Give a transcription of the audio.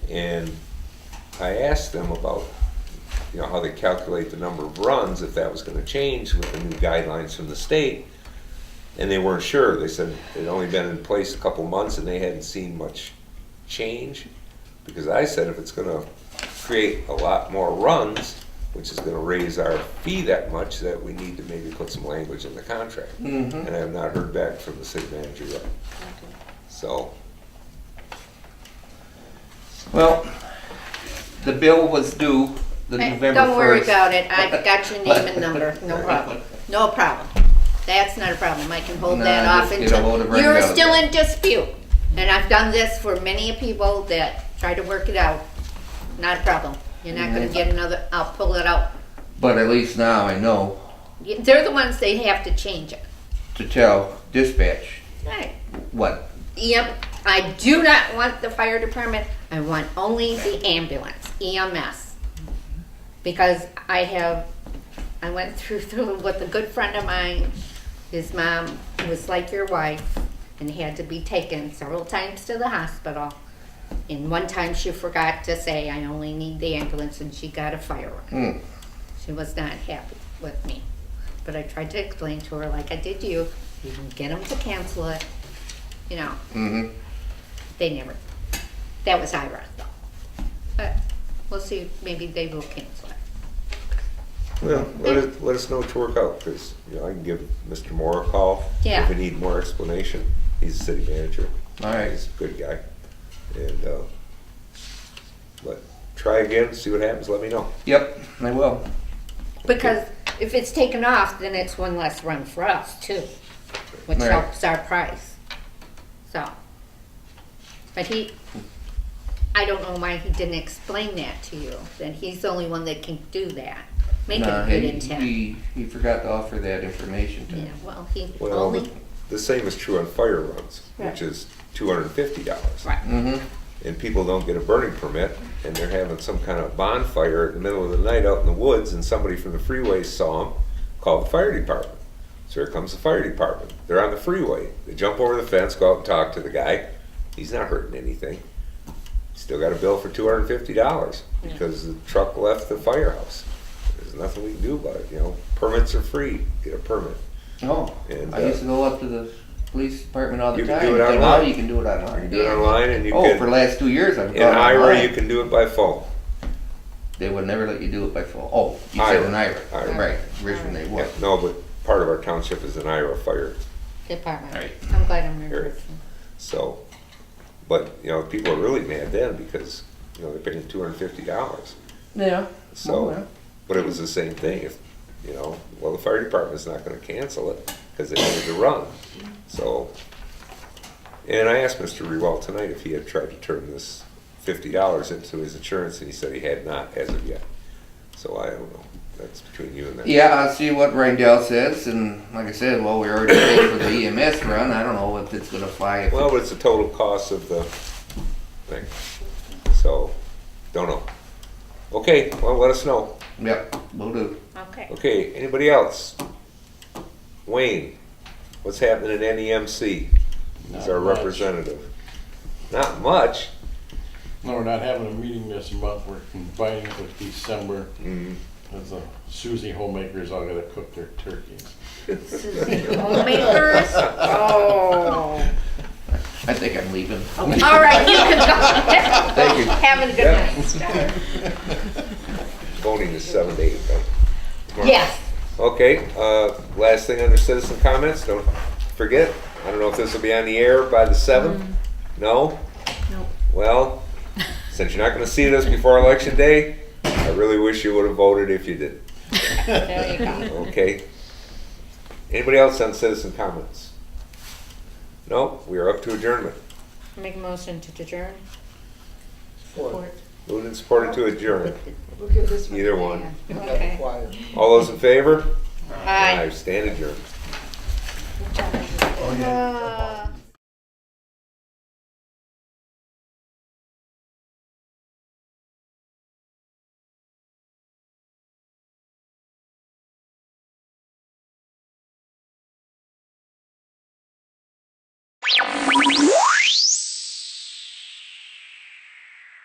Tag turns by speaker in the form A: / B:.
A: I asked them about, you know, how they calculate the number of runs, if that was gonna change with the new guidelines from the state. And they weren't sure. They said it'd only been in place a couple months and they hadn't seen much change. Because I said if it's gonna create a lot more runs, which is gonna raise our fee that much, that we need to maybe put some language in the contract. And I have not heard back from the city manager yet. So,
B: Well, the bill was due the
C: Hey,
B: November 1st.
C: Don't worry about it, I've got your name and number, no problem, no problem. That's not a problem, I can hold
B: No,
C: that
B: I
C: off
B: just get a hold of
C: until,
B: Brenda
C: you're
B: out
C: still
B: there.
C: in dispute. And I've done this for many people that try to work it out, not a problem. You're not gonna
B: Mhm.
C: get another, I'll pull it out.
B: But at least now I know
C: Y- They're the ones they have to change it.
B: to tell dispatch
C: Right.
B: what.
C: Yep, I do not want the fire department, I want only the ambulance, EMS. Because I have, I went through, through with a good friend of mine, his mom was like your wife and had to be taken several times to the hospital. And one time she forgot to say, I only need the ambulance and she got a fire run.
B: Hmm.
C: She was not happy with me. But I tried to explain to her, like I did you, you can get them to cancel it, you know.
A: Mm-hmm.
B: hmm
C: They never. That was IRA though. But we'll see, maybe they will cancel it.
A: well, let us, let us know what to work out, because, you know, I can give Mr. Moore a call.
C: Yeah.
A: If we need more explanation, he's the city manager.
B: All right.
A: He's a good guy. And, uh, but try again, see what happens, let me know.
B: Yep, I will.
C: Because if it's taken off, then it's one less run for us too, which
B: Right.
C: helps our price. So. But he, I don't know why he didn't explain that to you, Then he's the only one that can do that, make it
B: Nah,
C: a good
B: he-
C: intent.
B: He, he forgot to offer that information to
C: Yeah,
B: me.
C: well, he
A: Well, the-
C: only,
A: the same is true on fire runs,
C: Right.
A: which is two hundred and fifty dollars.
C: Right.
B: Mm-hmm.
A: And people don't get a burning permit, and they're having some kind of bonfire in the middle of the night out in the woods, and somebody from the freeway saw them, called the fire department. So here comes the fire department. They're on the freeway. They jump over the fence, go out and talk to the guy. He's not hurting anything. Still got a bill for two hundred and fifty dollars because the truck left the firehouse. There's nothing we can do about it, you know. Permits are free. Get a permit.
B: Oh,
A: And,
B: I
A: uh,
B: used to go up to the police department all the
A: you can
B: time.
A: do it
B: but now
A: online.
B: you can do
A: You
B: it
A: can
B: online.
A: do it online and you
B: oh,
A: can.
B: for the last two years I've
A: In
B: gone
A: IRA,
B: online.
A: you can do it by phone.
B: They would never let you do it by phone. Oh, you
A: IRA.
B: said an IRA.
A: IRA.
B: Right, Richmond they would.
A: Yeah, No, but part of our township is an IRA fire,
B: Right.
C: department, I'm glad I'm
A: Eric.
C: remembering.
A: so, but, you know, people are really mad then because, you know, they're paying two hundred and fifty dollars.
B: Yeah. Oh,
A: So,
B: well.
A: but it was the same thing, if, you know, well, the fire department's not gonna cancel it, cause they needed to run, so. And I asked Mr. Rewalt tonight if he had tried to turn this fifty dollars into his insurance, and he said he had not as of yet. So I don't know, that's between you and them.
B: Yeah, I'll see what Rindell says, and like I said, well, we already paid for the EMS run, I don't know if it's gonna fly. if-
A: Well, but it's the total cost of the thing, so, don't know. Okay, well, let us know.
B: Yep, will do.
C: Okay.
A: Okay, anybody else? Wayne, what's happening in NEMC? He's our
D: Not much.
A: representative. Not much.
D: No, we're not having a meeting this month, we're combining it with December,
A: Mm,
D: as uh, Suzie homemakers all gotta cook their turkeys.
C: Homemakers? Oh.
B: I think I'm leaving.
C: All right, you can go.
B: Thank you.
C: Have a good
A: Yeah.
C: night.
A: Voting is seven to eight, right? Tomorrow.
C: Yes.
A: Okay, uh, last thing under citizen comments, don't forget, I don't know if this will be on the air by the seventh? No?
C: Mm-hmm. Nope.
A: Well, since you're not gonna see this before election day, I really wish you would've voted if you did,
C: There you go.
A: okay? Anybody else on citizen comments? No, we are up to adjournment.
C: Make a motion to adjourn.
A: Moved and supported to adjourn,
E: We'll give this one.
A: either one.
C: Okay.
E: Quiet.
A: All those in favor?
C: Aye.
A: Stand adjourned.
C: Ah.